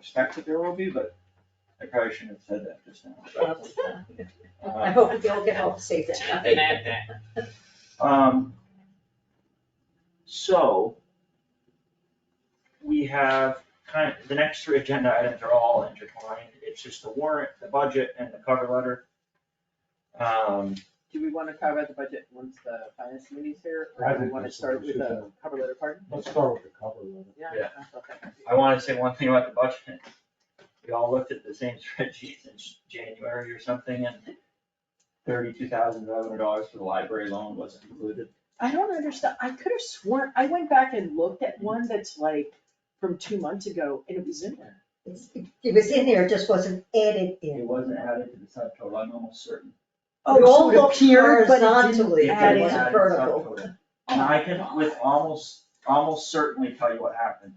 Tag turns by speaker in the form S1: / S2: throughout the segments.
S1: expect that there will be, but I probably shouldn't have said that just now.
S2: I
S1: Uh,
S2: hope they'll get help save that.
S3: Nothing at that.
S1: Um, so we have kind of, the next three agenda items are all intertwined. It's just the warrant, the budget and the cover letter. Um,
S4: Do we wanna cover the budget once the finance committee's here, or do we wanna start with the cover letter part?
S5: Let's start with the cover letter.
S1: Yeah.
S4: Okay.
S1: I wanna say one thing about the budget. We all looked at the same spreadsheets in January or something and thirty-two thousand five hundred dollars for the library loan wasn't included.
S4: I don't understand, I could have sworn, I went back and looked at one that's like from two months ago and it was in there.
S2: It's- It was in there, it just wasn't added in.
S1: It wasn't added to the subtotal, I'm almost certain.
S2: Oh,
S4: Roll
S2: it appeared, but it didn't
S4: horizontally.
S2: add
S1: It
S2: it
S1: was
S2: to
S1: added to
S2: vertical.
S1: subtotal. And I can with almost, almost certainly tell you what happened.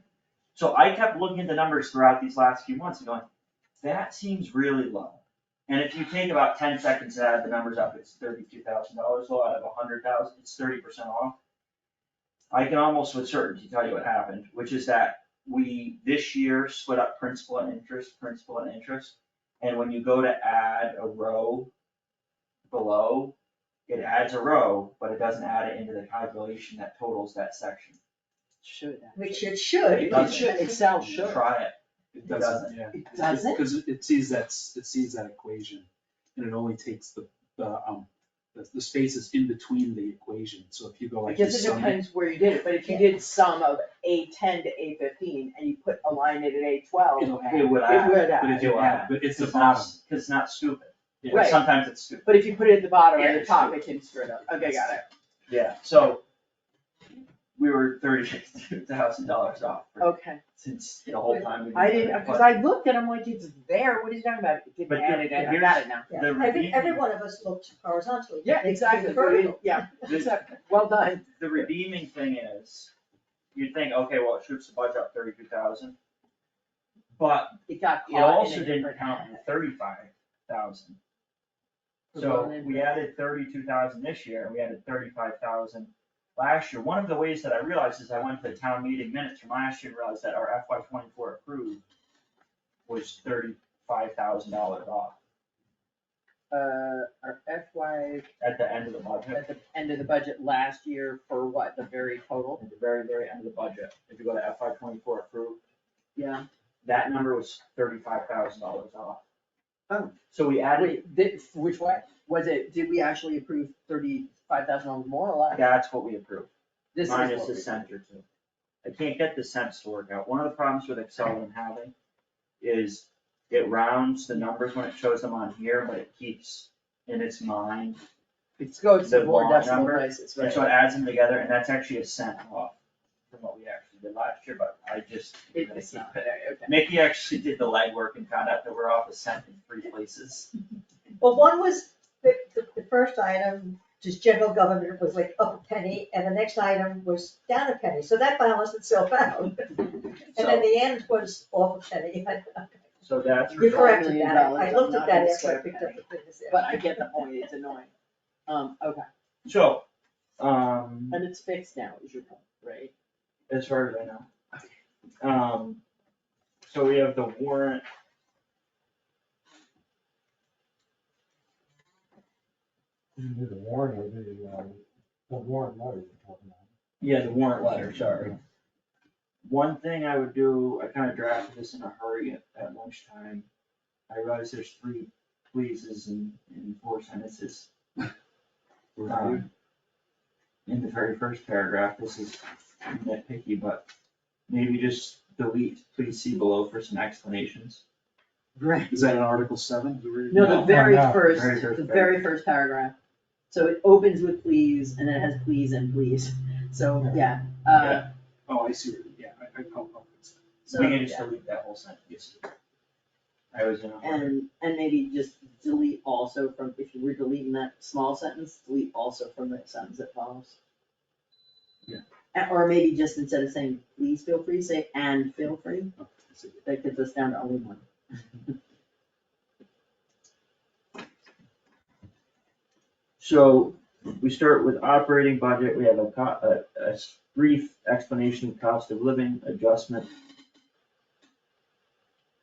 S1: So I kept looking at the numbers throughout these last few months and going, that seems really low. And if you take about ten seconds to add the numbers up, it's thirty-two thousand dollars low out of a hundred thousand, it's thirty percent off. I can almost with certainty tell you what happened, which is that we, this year, split up principal and interest, principal and interest. And when you go to add a row below, it adds a row, but it doesn't add it into the calculation that totals that section.
S4: Should.
S2: Which it should.
S1: It
S4: It
S1: doesn't.
S4: should, Excel should.
S1: Try it,
S5: It
S1: doesn't,
S5: yeah.
S4: It doesn't?
S5: Because it sees that, s- it sees that equation, and it only takes the, the, um, the, the spaces in between the equation, so if you go
S4: I
S5: like.
S4: guess
S5: this
S4: it
S5: sum-
S4: depends where you did it, but if you did sum of A ten to A fifteen and you put a line in at A twelve, it
S5: It'll add,
S1: it would add.
S4: would
S5: but
S4: add.
S5: if you add, but it's the
S1: not-
S5: bottom.
S1: It's not stupid,
S5: Yeah.
S4: Right.
S1: sometimes it's stupid,
S4: But if you put it at the bottom
S1: Yeah,
S4: or the
S1: it's
S4: top,
S1: true.
S4: it can screw it up. Okay, got it.
S1: yeah, so. We were thirty-two thousand dollars off for,
S4: Okay.
S1: since the whole time. we've been
S4: Oh. I
S1: doing
S4: didn't,
S1: it,
S4: because I looked at it, I'm like, it's there, what are you talking about? It
S1: But
S4: didn't add it, in. I
S1: here's-
S4: got it now.
S2: Yeah,
S1: The
S2: I think every
S1: redeeming-
S2: one of us looked horizontally.
S4: Yeah,
S2: It- it
S4: exactly, but it-
S2: vertical.
S4: yeah,
S1: but the-
S4: exactly, well done.
S1: The redeeming thing is, you'd think, okay, well, it shoots the budget up thirty-two thousand. But
S4: It got
S1: It
S4: caught
S1: also
S4: in a
S1: didn't
S4: different.
S1: count the thirty-five thousand.
S4: The
S1: So
S4: one
S1: we added thirty-two thousand this year, and we added thirty-five thousand last year. One of the ways that I realized is I went to the town meeting minutes from last year and realized that our FY twenty-four approved was thirty-five thousand dollars off
S4: Uh, our FY
S1: at the end of the budget,
S4: at the end of the budget last year for what, the very total?
S1: at the very, very end of the budget. If you go to FY twenty-four approved,
S4: Yeah.
S1: that number was thirty-five thousand dollars off.
S4: Oh.
S1: So we added,
S4: Wait, did, which way, was it, did we actually approve thirty-five thousand dollars more or less?
S1: that's what we approved.
S4: This is
S1: minus
S4: what
S1: the
S4: we-
S1: center too. I can't get the cents to work out. One of the problems with Excel that I'm having is it rounds the numbers when it shows them on here, but it keeps in its mind.
S4: It goes
S1: the
S4: to more
S1: long
S4: decimal
S1: number,
S4: places,
S1: And
S4: right?
S1: so it adds them together and that's actually a cent off from what we actually did last year, but I just.
S4: It- It's not there, okay.
S1: Mickey actually did the legwork and found out that we're off a cent in three places.
S2: Well, one was, the, the, the first item, just general government was like up a penny, and the next item was down a penny, so that balanced itself out. And then
S1: So,
S2: the end was off a penny. I-
S1: so that's.
S2: You
S1: resolved.
S2: corrected that, I I looked at that after I picked up the business.
S4: But I get the point, it's annoying. Um, okay,
S1: So, um,
S4: and it's fixed now, is your point, right?
S1: as far as I know. Um, so we have the warrant.
S5: You can do the warrant or the, um, the warrant letter we're talking about.
S1: Yeah, the warrant letter, sorry. One thing I would do, I kind of drafted this in a hurry at, at lunchtime. I realized there's three pleases in, in four sentences. Um, In the very first paragraph, this is nitpicky, but maybe just delete, please see below for some explanations.
S4: Right.
S5: Is that in Article seven? we're reading?
S4: No, the
S1: No,
S4: very
S5: no,
S4: first,
S1: very first
S4: the very first paragraph. So it opens with please and then it has please and please. So, yeah, uh,
S1: Yeah.
S5: Oh, I see, what you- yeah, I, I, oh, oh, it's-
S1: We
S4: so,
S1: can just delete that whole sentence. I was in a hurry.
S4: and, and maybe just delete also from, if you were deleting that small sentence, delete also from the sentence that follows.
S1: Yeah.
S4: And- Or maybe just instead of saying, please feel free, say, and feel free.
S5: oh, I see.
S4: That gets us down to only one.
S1: So we start with operating budget, we have a co- a, a brief explanation of cost of living adjustment,